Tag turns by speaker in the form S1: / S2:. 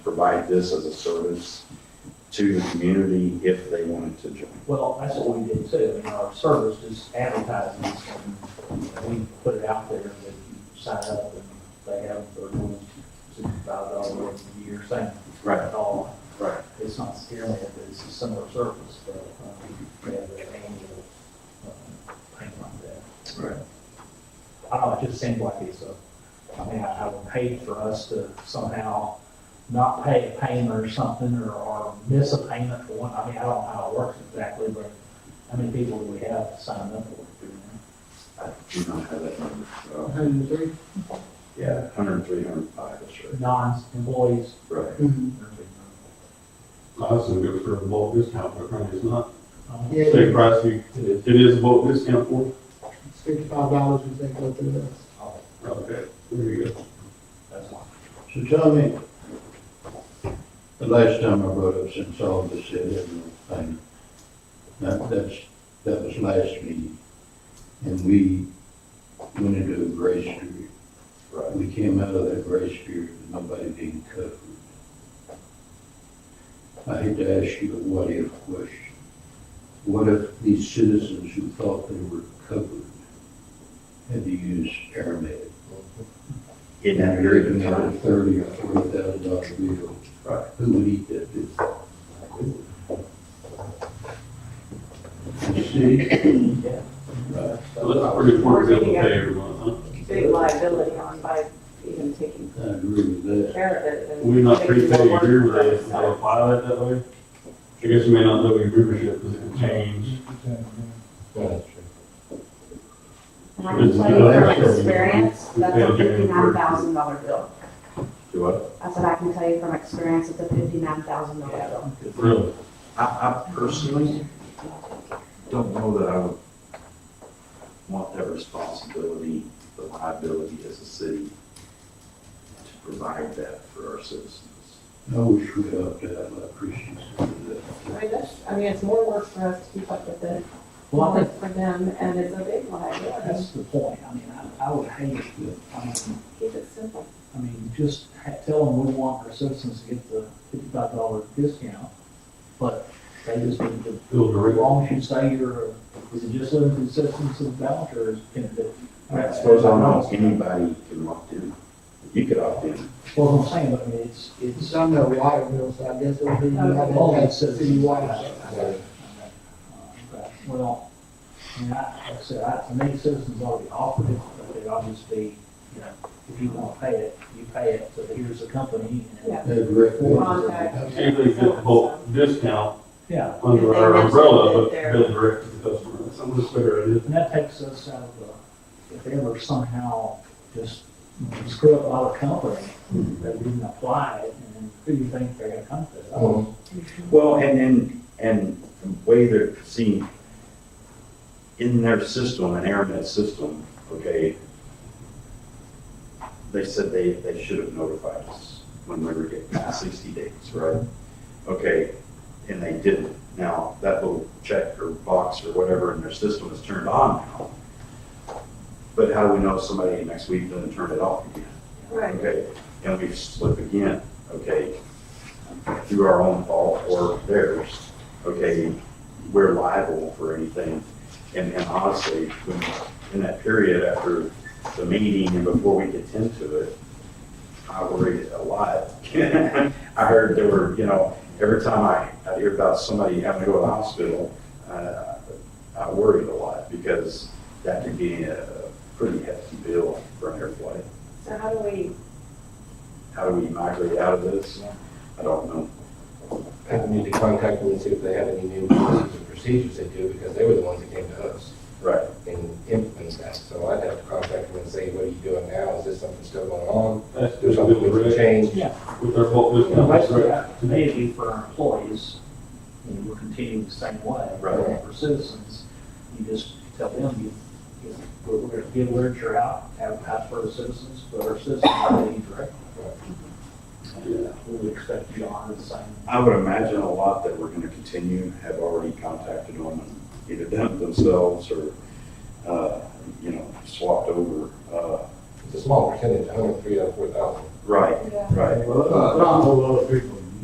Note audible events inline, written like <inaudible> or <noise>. S1: provide this as a service to the community if they wanted to join.
S2: Well, that's what we did too, and our service is advertising, this thing, and we put it out there that you sign up and they have their little sixty-five dollars a year thing.
S1: Right.
S2: And all.
S1: Right.
S2: It's not scary, it's a similar service, but, um, we have an annual, um, thing like that.
S1: Right.
S2: I don't know, it just seems like it's a, I mean, I, I would hate for us to somehow not pay a payment or something, or, or miss a payment for one, I mean, I don't know how it works exactly, but how many people do we have signed up for it?
S1: I do not have that number. so,
S3: Hundred and three?
S1: Yeah, 103, 105, that's right.
S2: Non-employees.
S1: Right.
S4: That's a good for a bulk discount, but currently it's not.
S2: Um,
S3: Yeah,
S4: State price, you, it is a bulk discount for.
S3: it's fifty-five dollars if they go through this.
S2: oh,
S4: Okay, there you go.
S2: That's why.
S5: So tell me, the last time I brought up since all this said everything, that, that's, that was last meeting. And we went into a grace period.
S1: Right.
S5: We came out of that grace period with nobody being covered. I hate to ask you a what-if question. What if these citizens who thought they were covered had to use paramedics?
S1: In that
S5: And you're
S1: period of
S5: looking at a
S1: time.
S5: thirty or forty thousand dollar bill.
S1: Right.
S5: Who would eat that bill? The city?
S2: Yeah.
S5: Right.
S4: So that's a pretty important bill to pay every month, huh?
S6: big liability on by even taking
S5: I agree with that.
S6: care of it. and
S4: We're not
S6: making
S4: prepaid
S6: it work
S4: here,
S6: for
S4: but they
S6: us,
S4: they
S6: so.
S4: apply it that way. I guess you may not know your membership, because it can change.
S6: And I can tell you from experience, that's a fifty-nine thousand dollar bill.
S1: Do what?
S6: That's what I can tell you from experience, it's a fifty-nine thousand dollar bill.
S4: Really?
S1: I, I personally don't know that I would want that responsibility, the liability as a city to provide that for our citizens.
S5: I wish we upped that, I appreciate that.
S6: I mean, that's, I mean, it's more work for us to keep up with it,
S2: Well, I
S6: more
S2: think
S6: work for them, and it's a big liability.
S2: that's the point, I mean, I, I would hate, I mean,
S6: Keep it simple.
S2: I mean, just ha- tell them we want our citizens to get the fifty-five dollar discount, but they just need to,
S4: Bill
S2: as
S4: direct.
S2: long as you say you're, is it just limited to citizens of Ballenger, or is it can it?
S1: I suppose I don't know if anybody can opt in. You could opt in.
S2: Well, I'm saying, but I mean, it's, it's,
S3: It's under water bill, so I guess it would be, you have
S2: Oh, all
S3: to
S2: that
S3: have
S2: citizens.
S3: city water.
S2: Uh, Well, I mean, I, like I said, I, to me, citizens ought to be offered it, but it ought to just be, you know, if you wanna pay it, you pay it, so here's the company, and,
S6: Yeah.
S5: That direct
S6: Contact.
S5: bill.
S4: See if they get the bulk discount
S2: yeah,
S4: under
S6: If they
S4: our
S6: mention
S4: umbrella,
S6: that
S4: but
S6: they're-
S4: bill direct to the customer. That's a much better idea.
S2: And that takes us out of the, if they ever somehow just screw up all the company, that we didn't apply it, and who do you think they're gonna come to? I don't-
S1: Well, and, and, and the way they're seen in their system, an AirNet system, okay, they said they, they should have notified us when we were getting sixty days, right? Okay, and they didn't. Now, that little check or box or whatever in their system is turned on now. But how do we know somebody next week doesn't turn it off again?
S6: Right.
S1: Okay, and we slip again, okay, through our own fault or theirs, okay, we're liable for anything. And, and honestly, when, in that period after the meeting and before we get into it, I worried a lot. <laughs> I heard there were, you know, every time I, I hear about somebody having to go to the hospital, uh, I worried a lot because that could be a pretty hefty bill for an airplane
S6: So how do we,
S1: how do we migrate out of this? I don't know.
S7: I would need to contact them and see if they have any new policies and procedures they do, because they were the ones that came to us
S1: Right.
S7: and implemented that. So I'd have to contact them and say, what are you doing now? Is this something still going on?
S4: That's
S7: Do
S4: just bill
S7: something we can
S4: direct
S7: change?
S2: Yeah.
S4: with our bulk
S2: You know, Basically,
S4: discount. That's Mm-hmm. right.
S2: that, to me, it'd be for our employees, and we're continuing the same way.
S1: Right.
S2: For citizens, you just tell them, you, you know, we're, we're gonna get literature out, advertise for the citizens, but our citizens are being direct.
S4: Yeah.
S2: We would expect you to honor the same.
S1: I would imagine a lot that we're gonna continue, have already contacted them, and either done it themselves or, uh, you know, swapped over, uh,
S7: It's a small percentage, a hundred, three, or four thousand.
S1: Right, right.
S3: Not a whole lot of people.